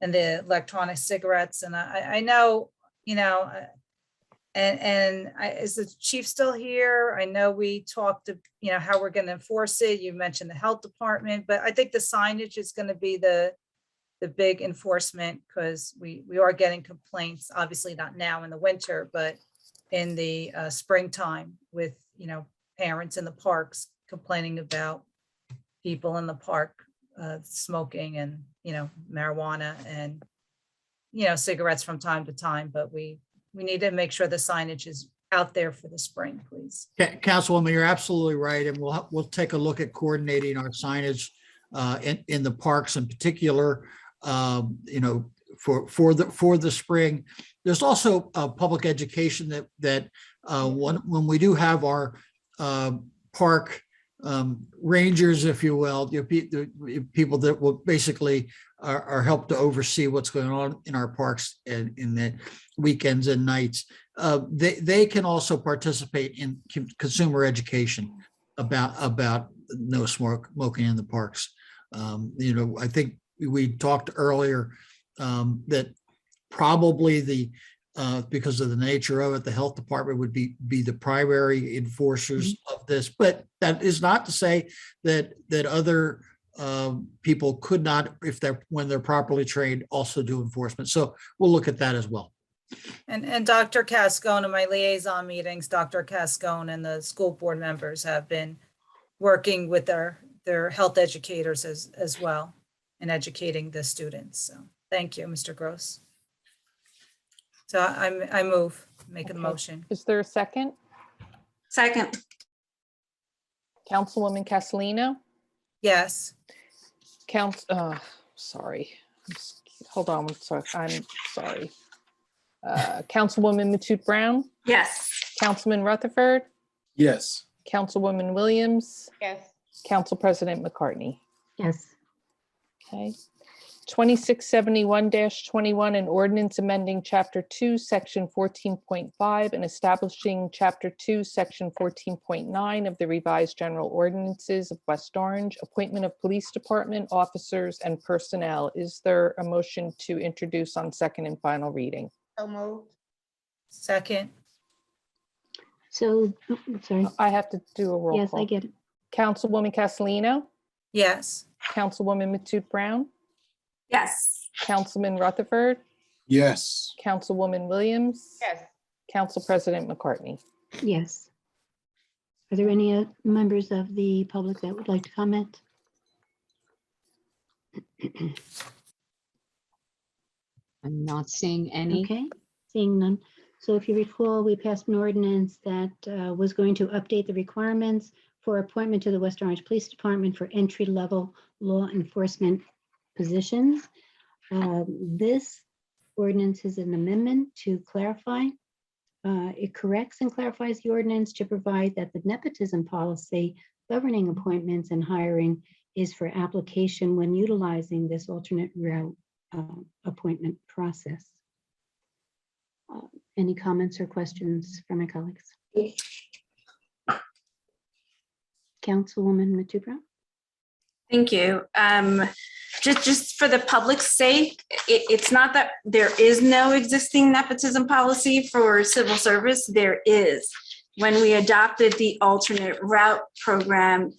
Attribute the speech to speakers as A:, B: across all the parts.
A: and the electronic cigarettes. And I, I- I know, you know, uh, and, and I, is the chief still here? I know we talked, of you know, how we're going to enforce it. You mentioned the health department, but I think the signage is going to be the, the big enforcement because we, we are getting complaints, obviously not now in the winter, but in the uh, springtime with, you know, parents in the parks complaining about people in the park uh, smoking and, you know, marijuana and, you know, cigarettes from time to time, but we, we need to make sure the signage is out there for the spring, please.
B: Ca- Councilwoman, you're absolutely right, and we'll, ha- we'll take a look at coordinating our signage uh, in, in the parks in particular, um, you know, for, for the, for the spring. There's also uh, public education that, that uh, when, when we do have our um, park um, rangers, if you will, you know, pe- the people that will basically are, are helped to oversee what's going on in our parks and in the weekends and nights uh, they they can also participate in con- consumer education about about no smoke smoking in the parks. Um, you know, I think we talked earlier um, that probably the uh, because of the nature of it, the health department would be be the primary enforcers of this. But that is not to say that that other um, people could not, if they're when they're properly trained, also do enforcement. So we'll look at that as well.
A: And, and Dr. Cascone in my liaison meetings, Dr. Cascone and the school board members have been working with their, their health educators as, as well and educating the students. So thank you, Mr. Gross. So I'm, I move, make a
C: Okay.
A: motion.
C: Is there a second?
D: Second,
C: Councilwoman Castellino?
A: Yes,
C: Council, uh, sorry. I'm s- Hold on, I'm sorry, I'm sorry. Uh, Councilwoman Matute Brown,
D: yes.
C: Councilman Rutherford,
E: Yes.
C: Councilwoman Williams,
F: Yes.
C: Council President McCartney.
F: Yes.
C: Okay. Twenty-six seventy-one twenty-one, an ordinance amending chapter two, section fourteen point five, and establishing chapter two, section fourteen point nine of the revised general ordinances of West Orange, appointment of police department officers and personnel. Is there a motion to introduce on second and final reading?
F: So moved.
A: second,
G: So, oh, I'm sorry.
C: I have to do a Uh, roll
G: Yes, I
C: call.
G: get it.
C: Councilwoman Castellino,
A: yes,
C: Councilwoman Matute Brown,
D: Yes.
C: Councilman Rutherford,
E: Yes.
C: Councilwoman Williams.
F: Yes.
C: Council President McCartney.
G: Yes. Are there any uh, members of the public that would like to comment?
H: I'm not seeing any.
G: Okay, seeing none. So if you recall, we passed an ordinance that uh, was going to update the requirements for appointment to the West Orange Police Department for entry-level law enforcement positions. Uh, This ordinance is an amendment to clarify. uh, It corrects and clarifies the ordinance to provide that the nepotism policy governing appointments and hiring is for application when utilizing this alternate route uh, appointment process. Uh, Any comments or questions from my colleagues? Councilwoman Matu Brown?
D: Thank you. Um, just, just for the public's sake, it, it's not that there is no existing nepotism policy for civil service. There is. When we adopted the alternate route program,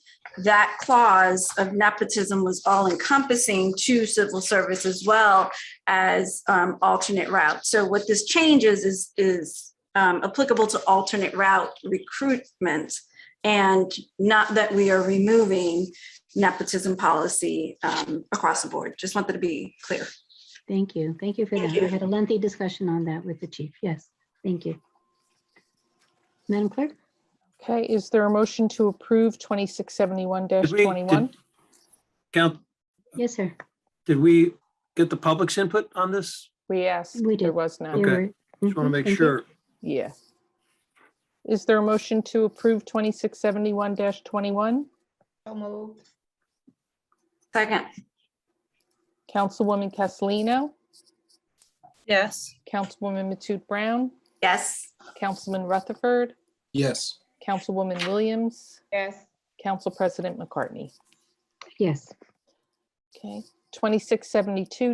D: that clause of nepotism was all encompassing to civil service as well as um, alternate route. So what this changes is, is um, applicable to alternate route recruitment and not that we are removing nepotism policy um, across the board. Just wanted to be clear.
G: Thank you. Thank you for that. We had a lengthy discussion on that with the chief. Yes, thank you. Madam Clerk?
C: Okay, is there a motion to approve twenty-six seventy-one
I: Did we-
C: twenty-one?
I: did- Count,
G: Yes, sir.
I: did we get the public's input on this?
C: We asked,
G: We
C: there
G: did.
C: was
G: There
C: none.
I: Okay.
G: were-
I: Just want to
G: Mhm,
I: make
G: thank you.
I: sure.
C: Yeah. Is there a motion to approve twenty-six seventy-one twenty-one?
F: So moved.
D: Second,
C: Councilwoman Castellino,
A: yes,
C: Councilwoman Matute Brown,
D: yes.
C: Councilman Rutherford,
E: Yes.
C: Councilwoman Williams,
F: Yes.
C: Council President McCartney.
G: Yes.
C: Okay, twenty-six seventy-two